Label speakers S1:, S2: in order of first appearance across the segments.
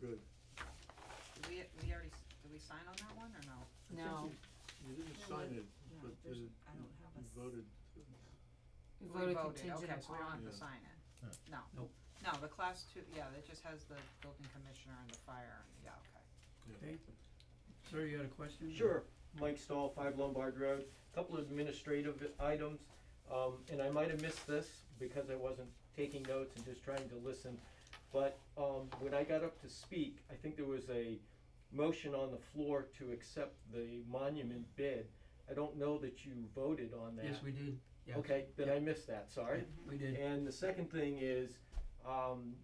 S1: good.
S2: Did we, we already, s- did we sign on that one or no?
S1: I think
S3: No.
S1: You you didn't
S2: There
S1: sign
S2: was-
S1: it,
S2: no,
S1: but
S2: there's-
S1: you
S2: I don't have a
S1: you
S2: s-
S1: voted, uh,
S3: We voted
S2: okay,
S3: contingent
S2: so we don't
S3: upon.
S2: have to
S1: Yeah.
S2: sign it.
S4: Yeah.
S2: No.
S5: Nope.
S2: No, the class two, yeah, that just has the building commissioner and the fire, and- yeah, okay.
S5: Okay. Sir, you had a question?
S6: Sure, Mike Stahl, five Lombard Road, couple of administrative items, um, and I might have missed this because I wasn't taking notes and just trying to listen. But, um, when I got up to speak, I think there was a motion on the floor to accept the monument bid. I don't know that you voted on that.
S5: Yes, we did, yes.
S6: Okay, then
S5: Yep,
S6: I missed that, sorry.
S5: yep, We did.
S6: And the second thing is, um,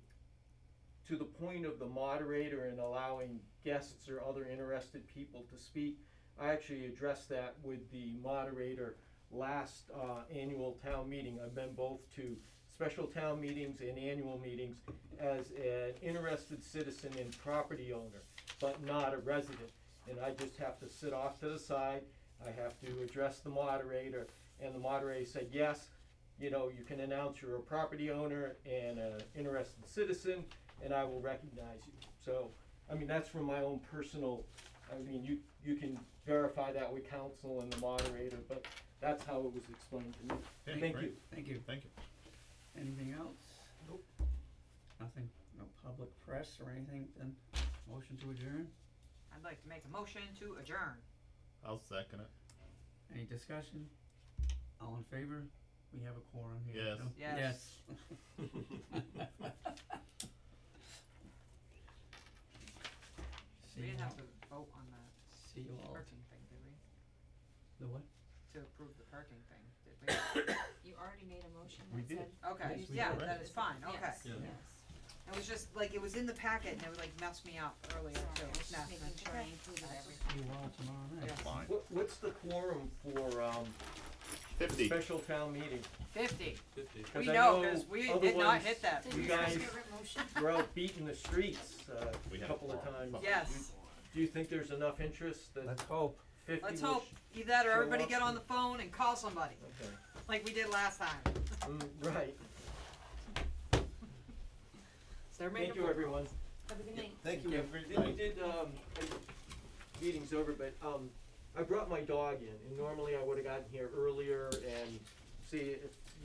S6: to the point of the moderator and allowing guests or other interested people to speak, I actually addressed that with the moderator last, uh, annual town meeting. I've been both to special town meetings and annual meetings as an interested citizen and property owner, but not a resident. And I just have to sit off to the side, I have to address the moderator, and the moderator said, yes, you know, you can announce you're a property owner and an interested citizen, and I will recognize you. So, I mean, that's from my own personal, I mean, you, you can verify that with council and the moderator, but that's how it was explained to me.
S4: Yeah,
S6: Thank
S4: great.
S6: you.
S5: Thank you.
S4: Thank you.
S5: Anything else? Nope. Nothing, no public press or anything, then motion to adjourn?
S2: I'd like to make a motion to adjourn.
S4: I'll second it.
S5: Any discussion? All in favor? We have a quorum here,
S4: Yes.
S5: so-
S2: Yes.
S5: Yes. See
S2: We
S5: you
S2: didn't
S5: all,
S2: have to vote on the
S5: see you all,
S2: parking thing, did we?
S5: the what?
S2: To approve the parking thing, did we?
S3: You already made a motion
S4: We did.
S2: Okay,
S5: Yes, we
S2: yeah,
S4: did.
S2: that is fine, okay.
S3: Yes,
S1: Yeah.
S3: yes.
S2: It was just, like, it was in the packet and it would like messed me up earlier too.
S3: Sorry, I was
S2: No,
S3: just making
S2: that's
S3: sure I
S2: right.
S3: included
S2: That's
S3: everything.
S5: See you all tomorrow night.
S2: Yeah.
S4: Fine.
S6: What, what's the quorum for, um,
S4: Fifty.
S6: special town meeting?
S2: Fifty,
S1: fifty.
S6: 'Cause
S2: we
S6: I
S2: know, cause we
S6: other
S2: did not
S6: ones
S2: hit that.
S6: You guys-
S3: motion?
S6: We're out beating the streets, uh,
S4: We
S6: a
S4: had a
S6: couple of
S4: quorum.
S6: times.
S2: Yes.
S6: Do you think there's enough interest that
S5: Let's hope.
S6: fifty will?
S2: Let's
S6: sh-
S2: hope either that or
S6: show
S2: everybody
S6: up
S2: get on
S6: and-
S2: the phone and call somebody,
S6: Okay,
S2: like we did last time.
S6: Mm, right.
S2: So they're
S6: Thank you, everyone.
S3: Have a good night.
S6: Thank you. We did, um, meeting's over, but, um, I brought my dog in, and normally I would've gotten here earlier and see if